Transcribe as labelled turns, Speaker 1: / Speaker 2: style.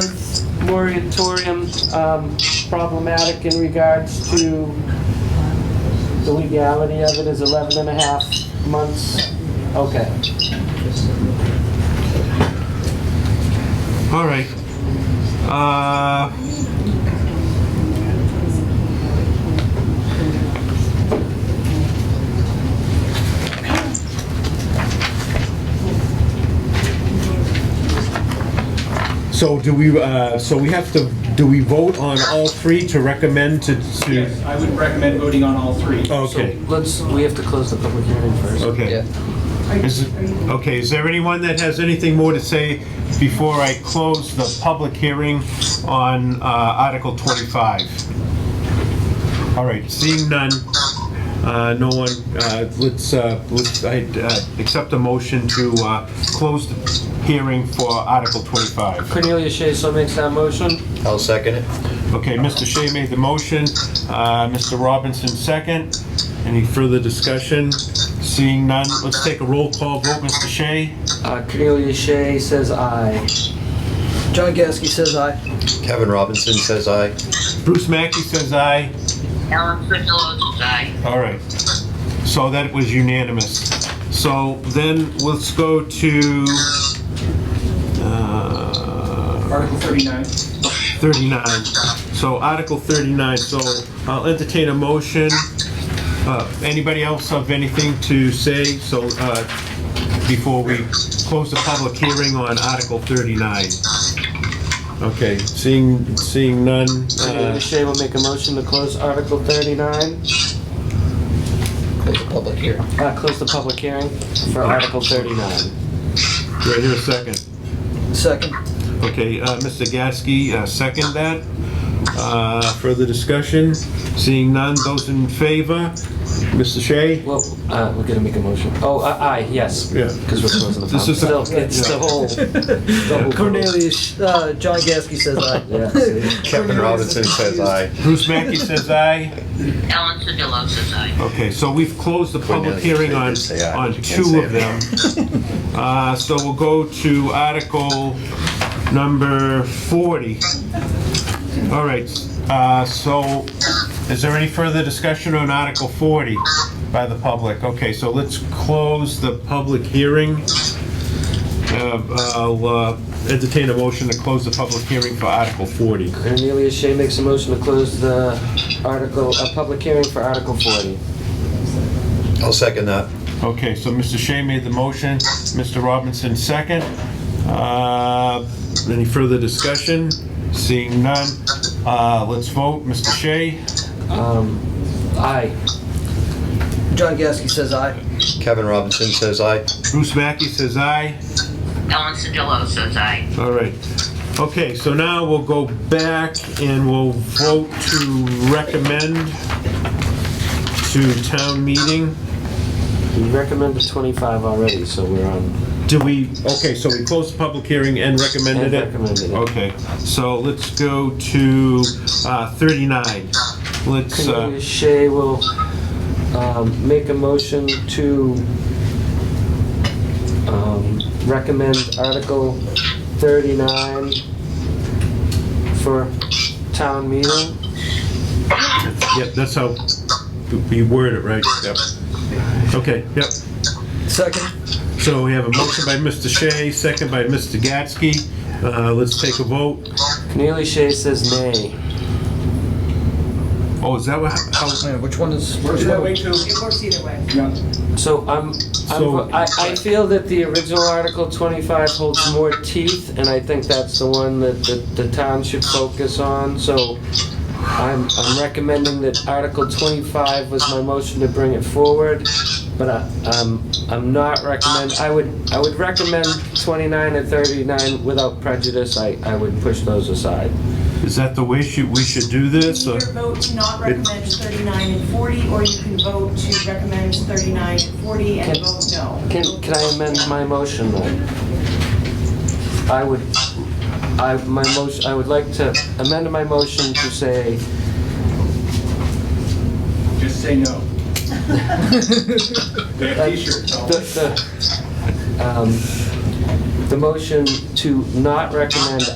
Speaker 1: 12-month moratorium um, problematic in regards to the legality of it is 11 and a half months. Okay.
Speaker 2: All right. Uh, So do we, uh, so we have to, do we vote on all three to recommend to,
Speaker 3: Yes,
Speaker 2: to?
Speaker 3: I would recommend voting on all three.
Speaker 2: Okay,
Speaker 1: Let's, we have to close the public hearing first.
Speaker 2: okay. Is, it- okay, is there anyone that has anything more to say before I close the public hearing on uh, Article 25? All right, seeing none, uh, no one, uh, let's, uh, let's, I accept a motion to uh, close the hearing for Article 25.
Speaker 1: Cornelia Shea so makes that motion.
Speaker 4: I'll second it.
Speaker 2: Okay, Mr. Shea made the motion, uh, Mr. Robinson second. Any further discussion? Seeing none, let's take a roll call vote, Mr. Shea?
Speaker 1: Uh, Cornelia Shea says aye.
Speaker 5: John Gasky says aye.
Speaker 4: Kevin Robinson says aye.
Speaker 2: Bruce Mackey says aye.
Speaker 6: Ellen Sedillo says aye.
Speaker 2: All right. So that was unanimous. So then let's go to uh,
Speaker 3: Article 39.
Speaker 2: 39. So Article 39, so I'll entertain a motion. Uh, Anybody else have anything to say? So uh, before we close the public hearing on Article 39? Okay, seeing, seeing none.
Speaker 1: Cornelia
Speaker 2: uh,
Speaker 1: Shea will make a motion to close Article 39,
Speaker 4: Close the public hearing.
Speaker 1: uh, close the public hearing for Article 39.
Speaker 2: Do I hear a second?
Speaker 5: Second.
Speaker 2: Okay, uh, Mr. Gasky, uh, second that. Uh, Further discussion? Seeing none, those in favor? Mr. Shea?
Speaker 1: Well, uh, we're gonna make a motion. Oh, uh, aye, yes.
Speaker 2: Yeah.
Speaker 1: Because we're closing the
Speaker 2: This
Speaker 1: public.
Speaker 2: is a-
Speaker 1: Still, it's the whole. double vote.
Speaker 5: Cornelius, uh, John Gasky says aye.
Speaker 1: Yeah, see?
Speaker 4: Kevin Robinson says aye.
Speaker 2: Bruce Mackey says aye.
Speaker 6: Ellen Sedillo says aye.
Speaker 2: Okay, so we've closed the public
Speaker 4: Cornelius,
Speaker 2: hearing
Speaker 4: they
Speaker 2: on,
Speaker 4: did say aye,
Speaker 2: on
Speaker 4: but you can't
Speaker 2: two
Speaker 4: say
Speaker 2: of
Speaker 4: it.
Speaker 2: them. Uh, So we'll go to Article number 40. All right, uh, so is there any further discussion on Article 40 by the public? Okay, so let's close the public hearing. Uh, I'll uh, entertain a motion to close the public hearing for Article 40.
Speaker 1: Cornelia Shea makes a motion to close the article, a public hearing for Article 40.
Speaker 4: I'll second that.
Speaker 2: Okay, so Mr. Shea made the motion, Mr. Robinson second. Uh, Any further discussion? Seeing none, uh, let's vote. Mr. Shea?
Speaker 1: Um, aye.
Speaker 5: John Gasky says aye.
Speaker 4: Kevin Robinson says aye.
Speaker 2: Bruce Mackey says aye.
Speaker 6: Ellen Sedillo says aye.
Speaker 2: All right. Okay, so now we'll go back and we'll vote to recommend to town meeting.
Speaker 1: We recommended 25 already, so we're on.
Speaker 2: Do we, okay, so we closed the public hearing and
Speaker 1: And
Speaker 2: recommended it?
Speaker 1: recommended it. Oh,
Speaker 2: Okay, so let's go to uh, 39. Let's,
Speaker 1: Cornelia
Speaker 2: uh,
Speaker 1: Shea will um, make a motion to um, recommend Article 39 for town meeting.
Speaker 2: yep, that's how we word it, right? Yep. Okay, yep.
Speaker 5: Second.
Speaker 2: So we have a motion by Mr. Shea, second by Mr. Gatsky. Uh, Let's take a vote.
Speaker 1: Cornelia Shea says nay.
Speaker 2: Oh, is that what, how,
Speaker 5: Man, which one is?
Speaker 3: Works that way too.
Speaker 7: It works either way.
Speaker 3: Yeah.
Speaker 1: So I'm, I'm,
Speaker 2: So-
Speaker 1: I, I feel that the original Article 25 holds more teeth, and I think that's the one that the, the town should focus on, so I'm, I'm recommending that Article 25 was my motion to bring it forward, but I, I'm, I'm not recommend, I would, I would recommend 29 and 39 without prejudice, I, I would push those aside.
Speaker 2: is that the way should- we should do
Speaker 7: You
Speaker 2: this?
Speaker 7: can
Speaker 2: or-
Speaker 7: either vote to not recommend 39 and 40, or you can vote to recommend 39 and 40 and
Speaker 1: Can-
Speaker 7: vote no.
Speaker 1: Can, can I amend my motion then? I would, I, my motion, I would like to amend my motion to say,
Speaker 3: Just say no. They have t-shirts
Speaker 1: the,
Speaker 3: on.
Speaker 1: the, um, the motion to not recommend